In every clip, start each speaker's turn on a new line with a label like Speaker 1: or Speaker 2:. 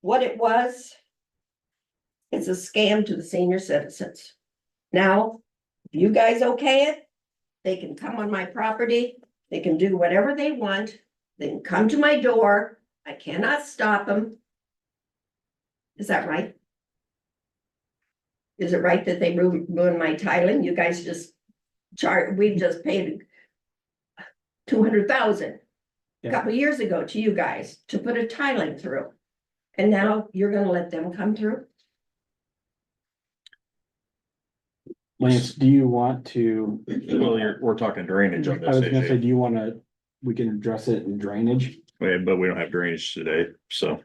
Speaker 1: what it was. It's a scam to the senior citizens. Now, if you guys okay it, they can come on my property, they can do whatever they want, they can come to my door, I cannot stop them. Is that right? Is it right that they ruin ruined my tiling? You guys just chart, we just paid two hundred thousand a
Speaker 2: Yeah.
Speaker 1: couple years ago to you guys to put a tiling through. And now you're gonna let them come through?
Speaker 2: Lance, do you want to?
Speaker 3: Well, you're, we're talking drainage on
Speaker 2: I
Speaker 3: this
Speaker 2: was gonna say,
Speaker 3: issue,
Speaker 2: do you wanna, we can address it in drainage?
Speaker 3: Yeah, but we don't have drainage today, so,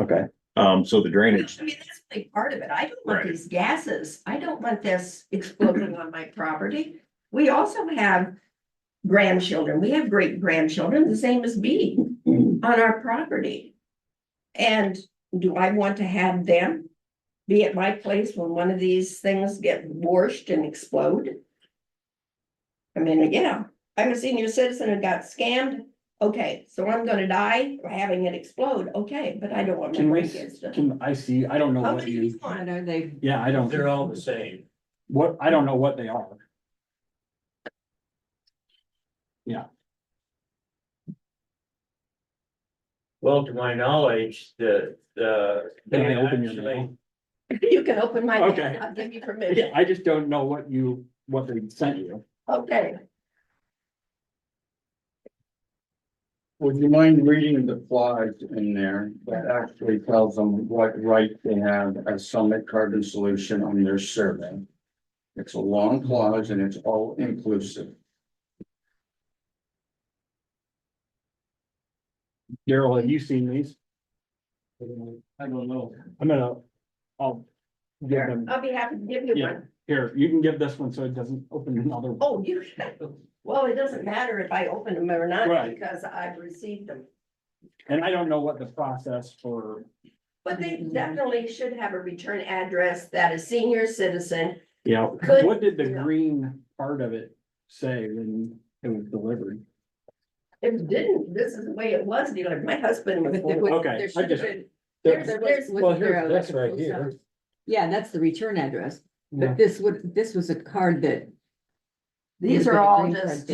Speaker 2: Okay,
Speaker 3: um, so the drainage,
Speaker 1: I mean, that's a big part of it. I don't want
Speaker 3: Right.
Speaker 1: these gases. I don't want this exploding on my property. We also have grandchildren. We have great grandchildren, the same as me, on
Speaker 2: Mm-hmm.
Speaker 1: our property. And do I want to have them be at my place when one of these things get washed and explode? I mean, yeah, I'm a senior citizen and got scammed. Okay, so I'm gonna die having it explode. Okay, but I don't want
Speaker 2: Can
Speaker 1: my
Speaker 2: we-
Speaker 1: kids to.
Speaker 2: can, I see, I don't know
Speaker 1: How
Speaker 2: what
Speaker 1: many do you
Speaker 2: you,
Speaker 1: want?
Speaker 4: know they,
Speaker 2: yeah, I don't,
Speaker 5: They're all the same.
Speaker 2: what, I don't know what they are.
Speaker 5: Well, to my knowledge, the, the.
Speaker 2: Can I open your mail?
Speaker 1: You can open my.
Speaker 2: Okay.
Speaker 1: I'll give you
Speaker 2: Yeah,
Speaker 1: permission.
Speaker 2: I just don't know what you, what they sent you.
Speaker 1: Okay,
Speaker 6: Would you mind reading the flags in there that actually tells them what right they have as Summit Carbon Solution on their survey? It's a long clause and it's all inclusive.
Speaker 2: Daryl, have you seen these?
Speaker 6: I don't know.
Speaker 2: I'm gonna, I'll give them,
Speaker 1: I'll be happy to give you
Speaker 2: Yeah.
Speaker 1: one.
Speaker 2: here, you can give this one so it doesn't open another. one.
Speaker 1: Oh, you, well, it doesn't matter if I open them or not
Speaker 2: Right.
Speaker 1: because I've received them.
Speaker 2: And I don't know what the process for,
Speaker 1: But they definitely should have a return address that a senior citizen,
Speaker 2: you know,
Speaker 1: Could-
Speaker 2: what did the green part of it say when it was delivered?
Speaker 1: it didn't, this is the way it was, you know, my husband was.
Speaker 2: Okay, I just-
Speaker 1: There's- there's-
Speaker 4: Well, here's this right here. Yeah, that's the return address,
Speaker 2: Yeah.
Speaker 4: but this would, this was a card that.
Speaker 1: These are all just,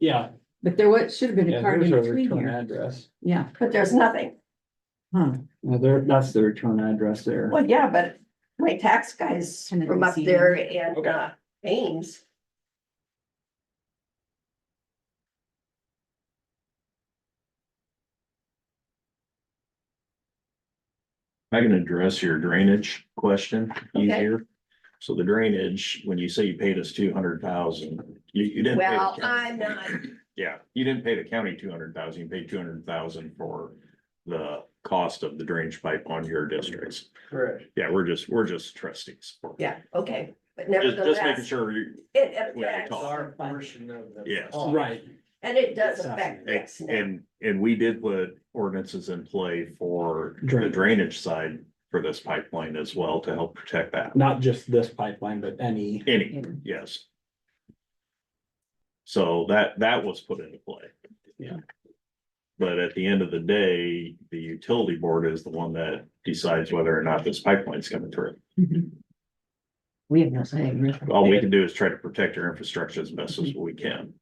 Speaker 2: Yeah.
Speaker 4: But there was, should have been a card in between here,
Speaker 2: address.
Speaker 4: yeah,
Speaker 1: but there's nothing.
Speaker 4: huh,
Speaker 2: Well, there, that's the return address there.
Speaker 1: Well, yeah, but my tax guys
Speaker 4: Kind of
Speaker 1: from up
Speaker 4: easy.
Speaker 1: there and
Speaker 2: Okay.
Speaker 1: uh, Ames.
Speaker 3: I can address your drainage question
Speaker 1: Okay.
Speaker 3: easier. So the drainage, when you say you paid us two hundred thousand, you, you didn't. pay the
Speaker 1: Well,
Speaker 3: county.
Speaker 1: I'm not,
Speaker 3: Yeah, you didn't pay the county two hundred thousand, you paid two hundred thousand for the cost of the drainage pipe on your districts.
Speaker 5: Correct.
Speaker 3: Yeah, we're just, we're just trustees.
Speaker 1: yeah, okay, but
Speaker 3: Just, just making
Speaker 1: nevertheless.
Speaker 3: sure you,
Speaker 1: It
Speaker 3: we can
Speaker 1: affects,
Speaker 3: talk.
Speaker 5: Our portion of the.
Speaker 3: Yes.
Speaker 5: cost.
Speaker 2: Right,
Speaker 1: and it does
Speaker 2: Exactly.
Speaker 1: affect us now.
Speaker 3: And, and we did put ordinances in play for the
Speaker 2: Drain.
Speaker 3: drainage side for this pipeline as well to help protect that.
Speaker 2: not just this pipeline, but any.
Speaker 3: Any, yes. So that, that was put into play.
Speaker 2: Yeah.
Speaker 3: But at the end of the day, the utility board is the one that decides whether or not this pipeline's coming through.
Speaker 4: we have no say.
Speaker 3: All we can do is try to protect our infrastructure as best as we can.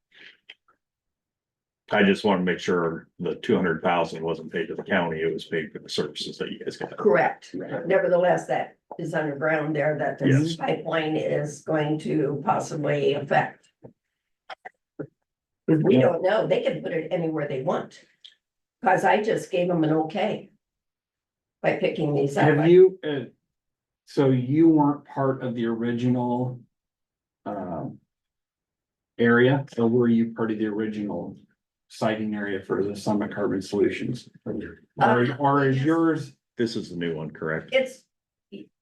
Speaker 3: I just want to make sure the two hundred thousand wasn't paid to the county, it was paid for the services that you guys got.
Speaker 1: Correct.
Speaker 2: Right.
Speaker 1: Nevertheless, that is underground there that this
Speaker 3: Yes.
Speaker 1: pipeline is going to possibly affect. We don't know. They can put it anywhere they want. Cause I just gave them an okay. By picking these up.
Speaker 2: Have you, uh, so you weren't part of the original, um, area, or were you part of the original siting area for the Summit Carbon Solutions? Or, or is yours
Speaker 3: This is the new one, correct?
Speaker 1: It's,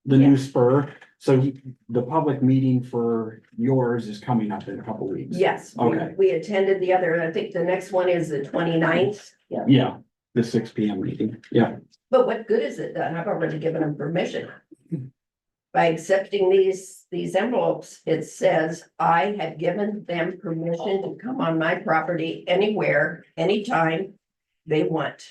Speaker 2: the new spur? So you- the public meeting for yours is coming up in a couple weeks.
Speaker 1: yes, we,
Speaker 2: Okay.
Speaker 1: we attended the other, I think the next one is the 29th. Yeah.
Speaker 2: Yeah, the six P M meeting, yeah.
Speaker 1: But what good is it done? I've already given them permission. By accepting these, these envelopes, it says I have given them permission to come on my property anywhere, anytime they want.